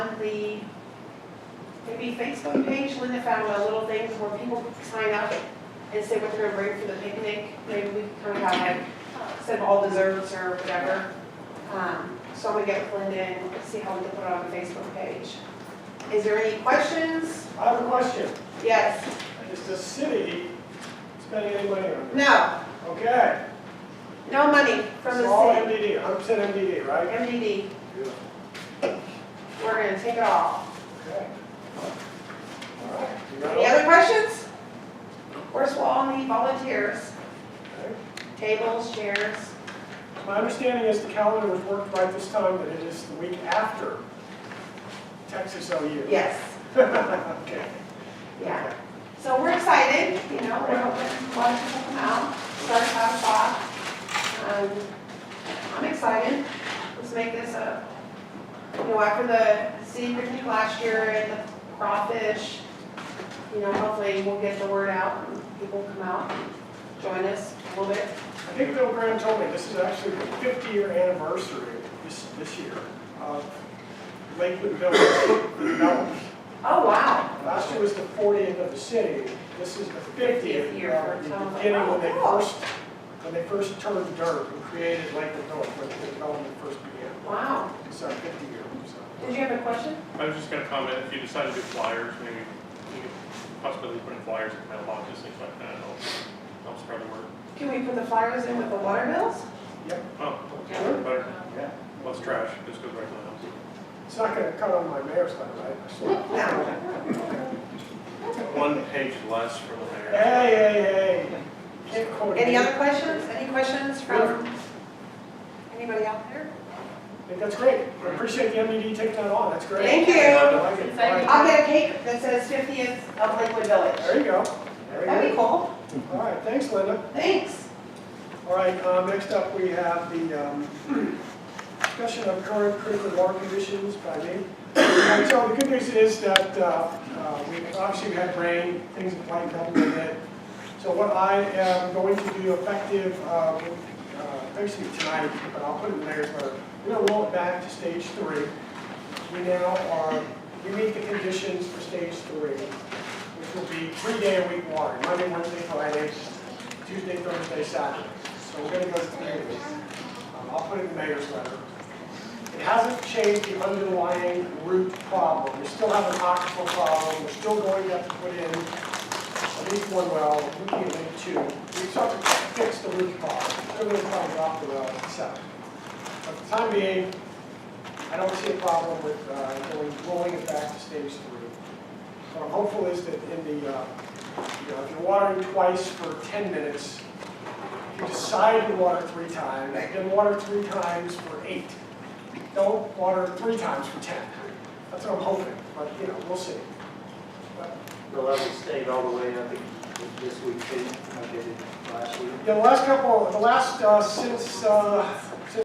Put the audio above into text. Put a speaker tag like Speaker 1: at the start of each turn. Speaker 1: the, maybe Facebook page, Linda found a little thing where people sign up and say what they're gonna bring for the picnic, maybe we can come out and send all desserts or whatever. Um, so I'm gonna get with Linda and see how we can put it on the Facebook page. Is there any questions?
Speaker 2: I have a question.
Speaker 1: Yes,
Speaker 2: Is the city spending any money on this?
Speaker 1: no,
Speaker 2: Okay.
Speaker 1: no money from
Speaker 2: It's all
Speaker 1: the city,
Speaker 2: MDD, I'm saying MDD, right?
Speaker 1: MDD,
Speaker 2: Yeah.
Speaker 1: we're gonna take it all.
Speaker 2: Okay. All right. You got
Speaker 1: Any
Speaker 2: all-
Speaker 1: other questions? First of all, I need volunteers,
Speaker 2: Okay.
Speaker 1: tables, chairs.
Speaker 2: My understanding is the calendar was worked right this time, that it is the week after Texas OU.
Speaker 1: Yes,
Speaker 2: Okay.
Speaker 1: yeah. So we're excited, you know, we're hoping a lot of people come out, start at five o'clock. Um, I'm excited. Let's make this a, you know, after the city review last year and the crawfish, you know, hopefully we'll get the word out and people come out, and join us a little bit.
Speaker 2: I think Bill Graham told me this is actually the 50-year anniversary this, this year of Lakewood Village development.
Speaker 1: Oh, wow.
Speaker 2: Last year was the 40th of the city, this is the 50th.
Speaker 1: 50th year for
Speaker 2: of the
Speaker 1: Town of
Speaker 2: Beginning when they
Speaker 1: Wow.
Speaker 2: first, when they first turned dirt and created Lakewood Village, when the development first began.
Speaker 1: Wow.
Speaker 2: It's our 50 year, so.
Speaker 1: Did you have a question?
Speaker 3: I was just gonna comment, if you decide to do flyers, maybe you could possibly put in flyers in mailboxes, things like that, it'll, help spread the word.
Speaker 1: Can we put the flyers in with the water bills?
Speaker 3: Oh,
Speaker 2: Sure.
Speaker 3: better,
Speaker 2: Yeah.
Speaker 3: less trash, just goes right to the house.
Speaker 2: It's not going to cut on my mayor's time, right? I swear.
Speaker 1: No.
Speaker 3: One page less for the mayor.
Speaker 2: Hey, hey, hey. Can't quote me.
Speaker 1: Any other questions? Any questions from anybody out there?
Speaker 2: I think that's great. I appreciate the MDD taking that on, that's great.
Speaker 1: Thank you.
Speaker 2: I like it.
Speaker 4: Thank
Speaker 1: I'll get a cake that says fiftieth of Lakewood
Speaker 2: There
Speaker 1: Village.
Speaker 2: you go. There
Speaker 1: That'd
Speaker 2: you
Speaker 1: be cool.
Speaker 2: go. All right, thanks, Linda.
Speaker 1: Thanks.
Speaker 2: All right, uh, next up, we have the um, discussion of current critical water conditions by me. And So the good news is that uh, uh, we, obviously we had rain, things have lightened up a little bit. So what I am going to do effective, uh, uh, basically tonight, but I'll put it in there, but we're going to roll it back to stage three. We now are, we meet the conditions for stage three, which will be three-day-a-week water, Monday, Wednesday, Fridays, Tuesday, Thursday, Saturday. So we're gonna go to mayor's. Um, I'll put in the mayor's letter. It hasn't changed the underlying root problem. We still have an aquifer problem. We're still going to have to put in at least one well, we can make two. We just have to fix the root problem. We're gonna try to drop the well at seven. But for the time being, I don't see a problem with uh, going, rolling it back to stage three. What I'm hopeful is that in the, uh, you know, if you're watering twice for 10 minutes, if you decide to water three times, then water three times for eight. Don't water three times for 10. That's what I'm hoping, but, you know, we'll see. But,
Speaker 5: The level stayed all the way, I think, this week too, I did it last week.
Speaker 2: Yeah, the last couple, the last, uh, since, uh,